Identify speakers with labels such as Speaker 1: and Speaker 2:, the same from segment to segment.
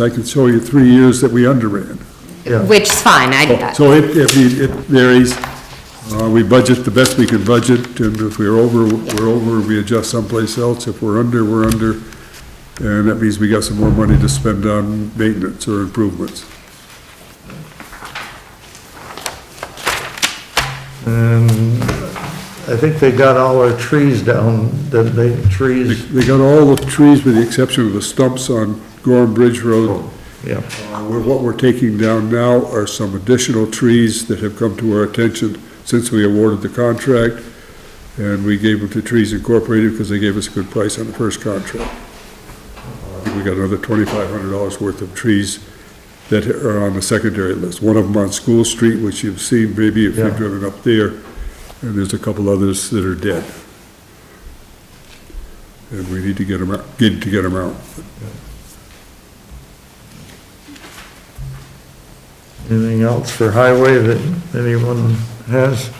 Speaker 1: I can show you three years that we underran.
Speaker 2: Yeah,
Speaker 3: Which is fine, I,
Speaker 1: So it, if you- it varies, Uh, we budget the best we can budget, and if we're over, we're over, we adjust someplace else, if we're under, we're under, and that means we got some more money to spend on maintenance or improvements.
Speaker 2: and I think they got all our trees down, that they,
Speaker 1: They
Speaker 2: trees,
Speaker 1: they got all the trees with the exception of the stumps on Gorham Bridge Road.
Speaker 2: yeah.
Speaker 1: Uh, we're- What we're taking down now are some additional trees that have come to our attention since we awarded the contract, and we gave them to Trees Incorporated because they gave us a good price on the first contract. Uh, I think we got another twenty-five hundred dollars worth of trees that are on the secondary list. One of them on School Street, which you've seen maybe if
Speaker 2: Yeah.
Speaker 1: you've driven up there, and there's a couple others that are dead. And we need to get them out, get to get them out.
Speaker 2: Anything else for highway that anyone has?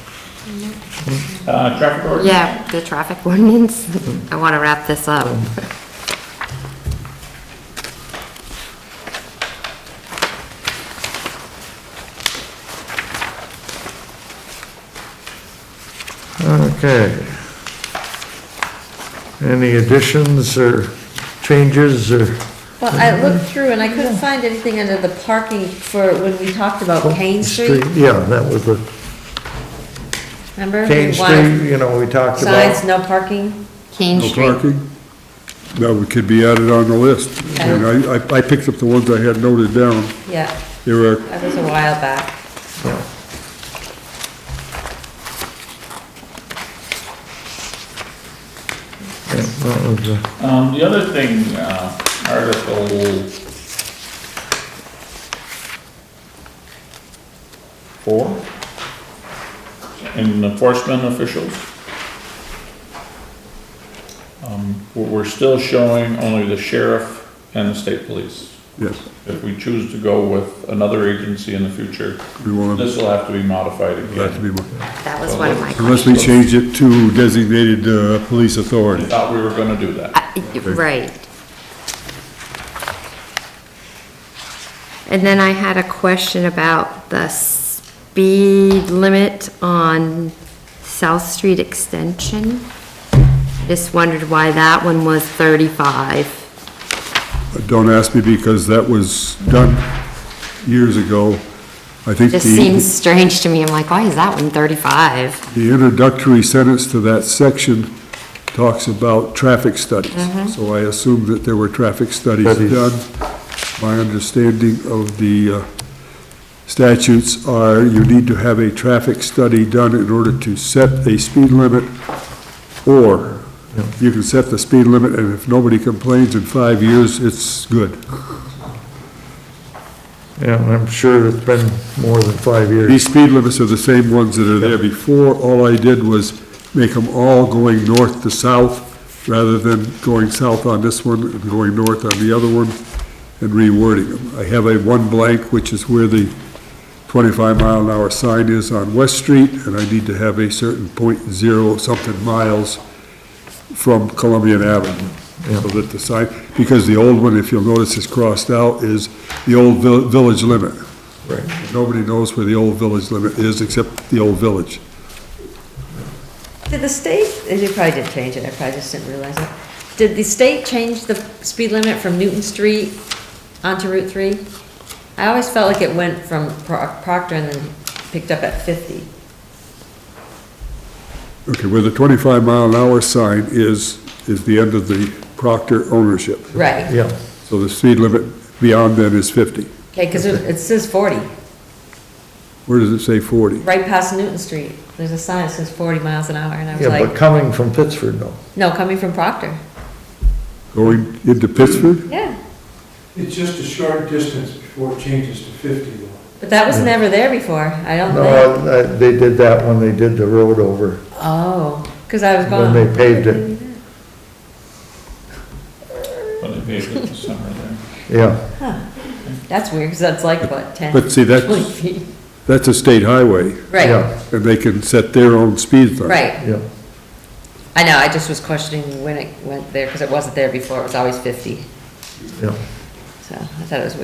Speaker 4: Uh, traffic ordinance?
Speaker 3: yeah, the traffic ordinance, I want to wrap this up.
Speaker 2: Okay. Any additions or changes or,
Speaker 5: Well, I looked through and I couldn't find anything under the parking for when we talked about Kane Street,
Speaker 2: yeah, that was the
Speaker 5: remember?
Speaker 2: Kane
Speaker 5: We wanted
Speaker 2: Street, you know, we talked
Speaker 5: Signs,
Speaker 2: about.
Speaker 5: no parking.
Speaker 3: Kane
Speaker 1: No
Speaker 3: Street,
Speaker 1: parking? That would- could be added on the list. And I, I- I picked up the ones I had noted down.
Speaker 5: Yeah,
Speaker 1: There are,
Speaker 5: that was a while back.
Speaker 2: Yeah. Yeah, that was the-
Speaker 4: Um, the other thing, uh, Article four, and enforcement officials. Um, we're, we're still showing only the sheriff and the state police.
Speaker 1: yes,
Speaker 4: If we choose to go with another agency in the future,
Speaker 1: we want them,
Speaker 4: this will have to be modified
Speaker 1: that to
Speaker 4: again.
Speaker 1: be, mo-
Speaker 3: that was one of my
Speaker 1: unless we change it to designated, uh, police
Speaker 4: I
Speaker 1: authority.
Speaker 4: thought we were gonna do that.
Speaker 3: I- Right. And then I had a question about the speed limit on South Street Extension. Just wondered why that one was 35.
Speaker 1: Don't ask me because that was done years ago. I think
Speaker 3: Just seems
Speaker 1: the,
Speaker 3: strange to me. I'm like, why is that one 35?
Speaker 1: the introductory sentence to that section talks about traffic studies. So I assume that there were traffic studies
Speaker 2: Studies.
Speaker 1: done. My understanding of the, uh, statutes are you need to have a traffic study done in order to set a speed limit, or you can set the speed limit, and if nobody complains in five years, it's good.
Speaker 2: Yeah, and I'm sure it's been more than five years.
Speaker 1: These speed limits are the same ones that are there before. All I did was make them all going north to south, rather than going south on this one and going north on the other one, and rewording them. I have a one blank, which is where the 25 mile an hour sign is on West Street, and I need to have a certain point zero something miles from Columbian Avenue. So that the sign, because the old one, if you'll notice, is crossed out, is the old vil- village limit.
Speaker 2: Right.
Speaker 1: Nobody knows where the old village limit is except the old village.
Speaker 5: Did the state, and you probably did change it, I probably just didn't realize it. Did the state change the speed limit from Newton Street onto Route 3? I always felt like it went from Pro- Proctor and then picked up at 50.
Speaker 1: Okay, where the 25 mile an hour sign is, is the end of the Proctor ownership.
Speaker 5: Right,
Speaker 2: Yeah,
Speaker 1: So the speed limit beyond that is 50.
Speaker 5: okay, because it it says 40,
Speaker 1: Where does it say 40?
Speaker 5: right past Newton Street. There's a sign that says 40 miles an hour, and I was
Speaker 2: yeah,
Speaker 5: like,
Speaker 2: but coming from Pittsford, no.
Speaker 5: no, coming from Proctor.
Speaker 1: Going into Pittsford?
Speaker 5: Yeah,
Speaker 6: It's just a short distance before it changes to 50 though.
Speaker 5: but that was never there before, I don't think.
Speaker 2: No, I- they did that when they did the road over,
Speaker 5: Oh, because I was
Speaker 2: when
Speaker 5: gone.
Speaker 2: they paved it,
Speaker 4: But it may have been somewhere there.
Speaker 2: yeah.
Speaker 5: That's weird, because that's like, what, 10?
Speaker 1: But see, that's-
Speaker 5: 20 feet.
Speaker 1: That's a state highway,
Speaker 5: Right,
Speaker 2: yeah,
Speaker 1: and they can set their own speed limit.
Speaker 5: right.
Speaker 2: Yeah,
Speaker 5: I know, I just was questioning when it went there, because it wasn't there before, it was always 50,
Speaker 2: yeah.
Speaker 5: so. so I thought it was weird.